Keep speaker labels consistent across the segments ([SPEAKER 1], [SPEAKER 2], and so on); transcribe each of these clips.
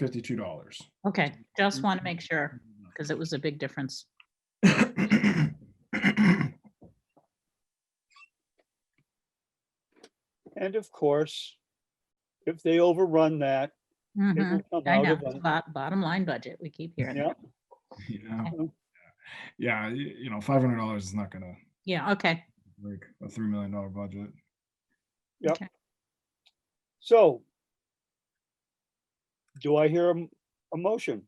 [SPEAKER 1] fifty-two dollars.
[SPEAKER 2] Okay, just want to make
[SPEAKER 3] Mm-hmm.
[SPEAKER 2] sure, because it was a big difference.
[SPEAKER 3] And of course, if they overrun that,
[SPEAKER 2] Mhm,
[SPEAKER 3] it will come
[SPEAKER 2] I
[SPEAKER 3] out
[SPEAKER 2] know,
[SPEAKER 3] of,
[SPEAKER 2] it's
[SPEAKER 3] the-
[SPEAKER 2] bo- bottom line budget, we keep hearing.
[SPEAKER 3] yeah,
[SPEAKER 2] that.
[SPEAKER 1] Yeah, yeah, y- you know, five hundred dollars is not gonna
[SPEAKER 2] Yeah, okay,
[SPEAKER 1] break a three million dollar budget.
[SPEAKER 3] so. Do I hear a, m- a motion?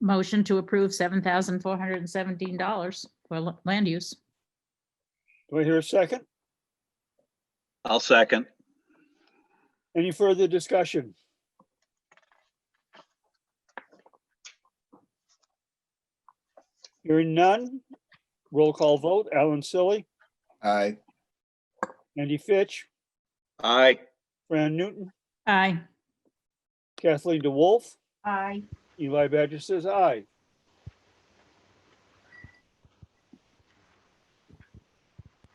[SPEAKER 2] motion to approve seven thousand four hundred and seventeen dollars for la- land use.
[SPEAKER 3] Do I hear a second?
[SPEAKER 4] I'll second.
[SPEAKER 3] Any further discussion? Hearing none, roll call vote, Alan Silly,
[SPEAKER 5] Aye,
[SPEAKER 3] Andy Fitch,
[SPEAKER 4] Aye.
[SPEAKER 3] Fran Newton,
[SPEAKER 2] Aye.
[SPEAKER 3] Kathleen DeWolf,
[SPEAKER 2] Aye.
[SPEAKER 3] Eli Badger says aye.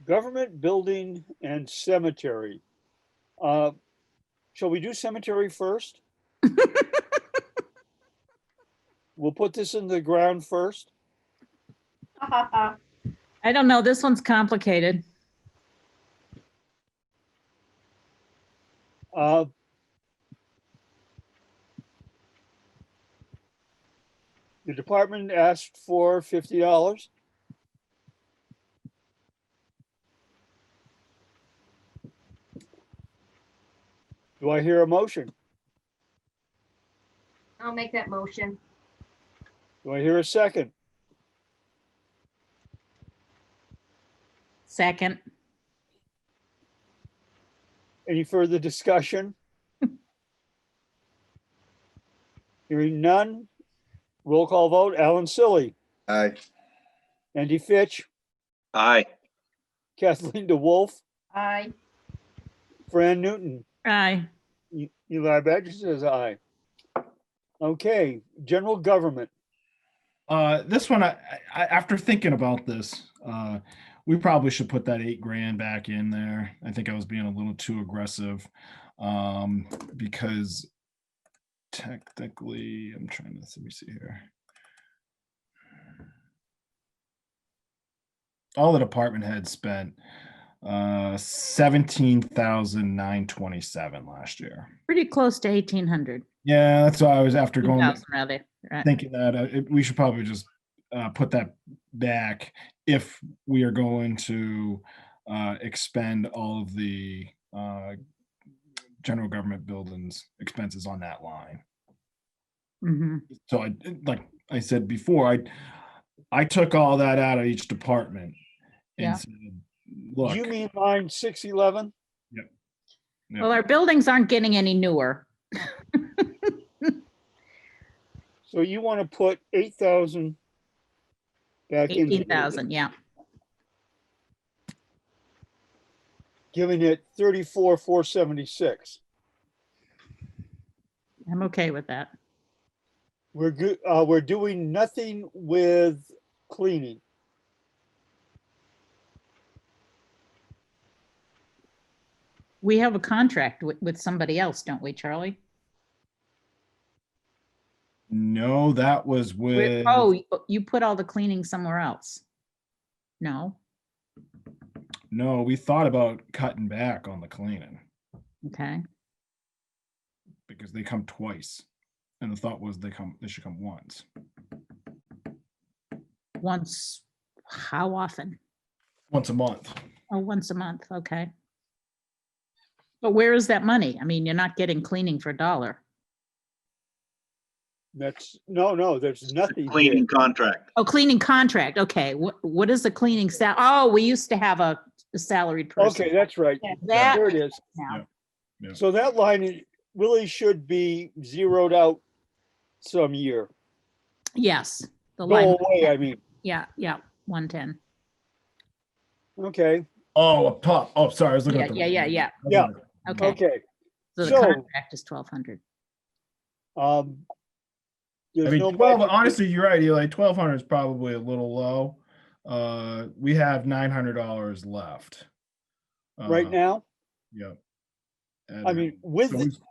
[SPEAKER 3] Government building and cemetery. Uh, Shall we do cemetery first? We'll put this in the ground first.
[SPEAKER 2] I don't know, this one's complicated.
[SPEAKER 3] Uh, The department asked for fifty dollars. Do I hear a motion?
[SPEAKER 6] I'll make that motion.
[SPEAKER 3] Do I hear a second?
[SPEAKER 2] Second,
[SPEAKER 3] Any further discussion? Hearing none. Roll call vote. Alan Silly,
[SPEAKER 5] aye,
[SPEAKER 3] Andy Fitch,
[SPEAKER 4] Aye.
[SPEAKER 3] Kathleen DeWolf,
[SPEAKER 6] Aye.
[SPEAKER 3] Fran Newton.
[SPEAKER 2] aye,
[SPEAKER 3] E- Eli Badger says aye. Okay, general government.
[SPEAKER 1] Uh, this one, I, I, after thinking about this, uh, we probably should put that eight grand back in there. I think I was being a little too aggressive. Um, because technically, I'm trying to, let me see here. All the department heads spent, uh, seventeen thousand nine twenty-seven last year.
[SPEAKER 2] pretty close to eighteen hundred.
[SPEAKER 1] Yeah, that's why I was after
[SPEAKER 2] Two
[SPEAKER 1] going,
[SPEAKER 2] thousand rather, right.
[SPEAKER 1] thinking that uh, it, we should probably just uh, put that back if we are going to uh, expend all of the uh, general government buildings expenses on that line.
[SPEAKER 2] Mhm,
[SPEAKER 1] So I, like I said before, I, I took all that out of each department.
[SPEAKER 2] Yeah.
[SPEAKER 1] and said, Look,
[SPEAKER 3] You mean line six eleven?
[SPEAKER 1] Yeah.
[SPEAKER 2] Well, our buildings aren't getting any newer.
[SPEAKER 3] So you want to put eight thousand back in,
[SPEAKER 2] Eighteen thousand, yeah,
[SPEAKER 3] giving it thirty-four, four seventy-six.
[SPEAKER 2] I'm okay with that.
[SPEAKER 3] We're good, uh, we're doing nothing with cleaning.
[SPEAKER 2] We have a contract with, with somebody else, don't we, Charlie?
[SPEAKER 1] no, that was with,
[SPEAKER 2] Wait, Oh, you- you put all the cleaning somewhere else? No,
[SPEAKER 1] no, we thought about cutting back on the cleaning.
[SPEAKER 2] okay,
[SPEAKER 1] because they come twice. And the thought was they come they should come once.
[SPEAKER 2] once, how often?
[SPEAKER 1] Once a month.
[SPEAKER 2] Oh, once a month, okay. But where is that money? I mean, you're not getting cleaning for a dollar.
[SPEAKER 3] That's, no, no, there's nothing. here.
[SPEAKER 4] Cleaning contract.
[SPEAKER 2] Oh, cleaning contract, okay, what, what is the cleaning sal, oh, we used to have a a salaried person.
[SPEAKER 3] Okay, that's right.
[SPEAKER 2] That,
[SPEAKER 3] There it is.
[SPEAKER 2] now.
[SPEAKER 1] Yeah.
[SPEAKER 3] So that line i- really should be zeroed out some year.
[SPEAKER 2] yes, the
[SPEAKER 3] Go
[SPEAKER 2] line,
[SPEAKER 3] away, I mean.
[SPEAKER 2] yeah, yeah, one ten,
[SPEAKER 3] Okay,
[SPEAKER 1] Oh, up top. Oh, sorry, I was looking
[SPEAKER 2] yeah,
[SPEAKER 1] at the
[SPEAKER 2] yeah, yeah, yeah,
[SPEAKER 3] Yeah.
[SPEAKER 2] okay,
[SPEAKER 3] okay.
[SPEAKER 2] so the
[SPEAKER 3] So-
[SPEAKER 2] contract is twelve hundred.
[SPEAKER 3] Um.
[SPEAKER 1] I
[SPEAKER 3] there's no
[SPEAKER 1] mean, 12,
[SPEAKER 3] budget.
[SPEAKER 1] honestly, you're right, Eli. Twelve hundred is probably a little low. Uh, we have nine hundred dollars left.
[SPEAKER 3] Right
[SPEAKER 1] Uh,
[SPEAKER 3] now,
[SPEAKER 1] Yep. at
[SPEAKER 3] I
[SPEAKER 1] it.
[SPEAKER 3] mean, with,
[SPEAKER 1] So
[SPEAKER 3] the-
[SPEAKER 1] he's-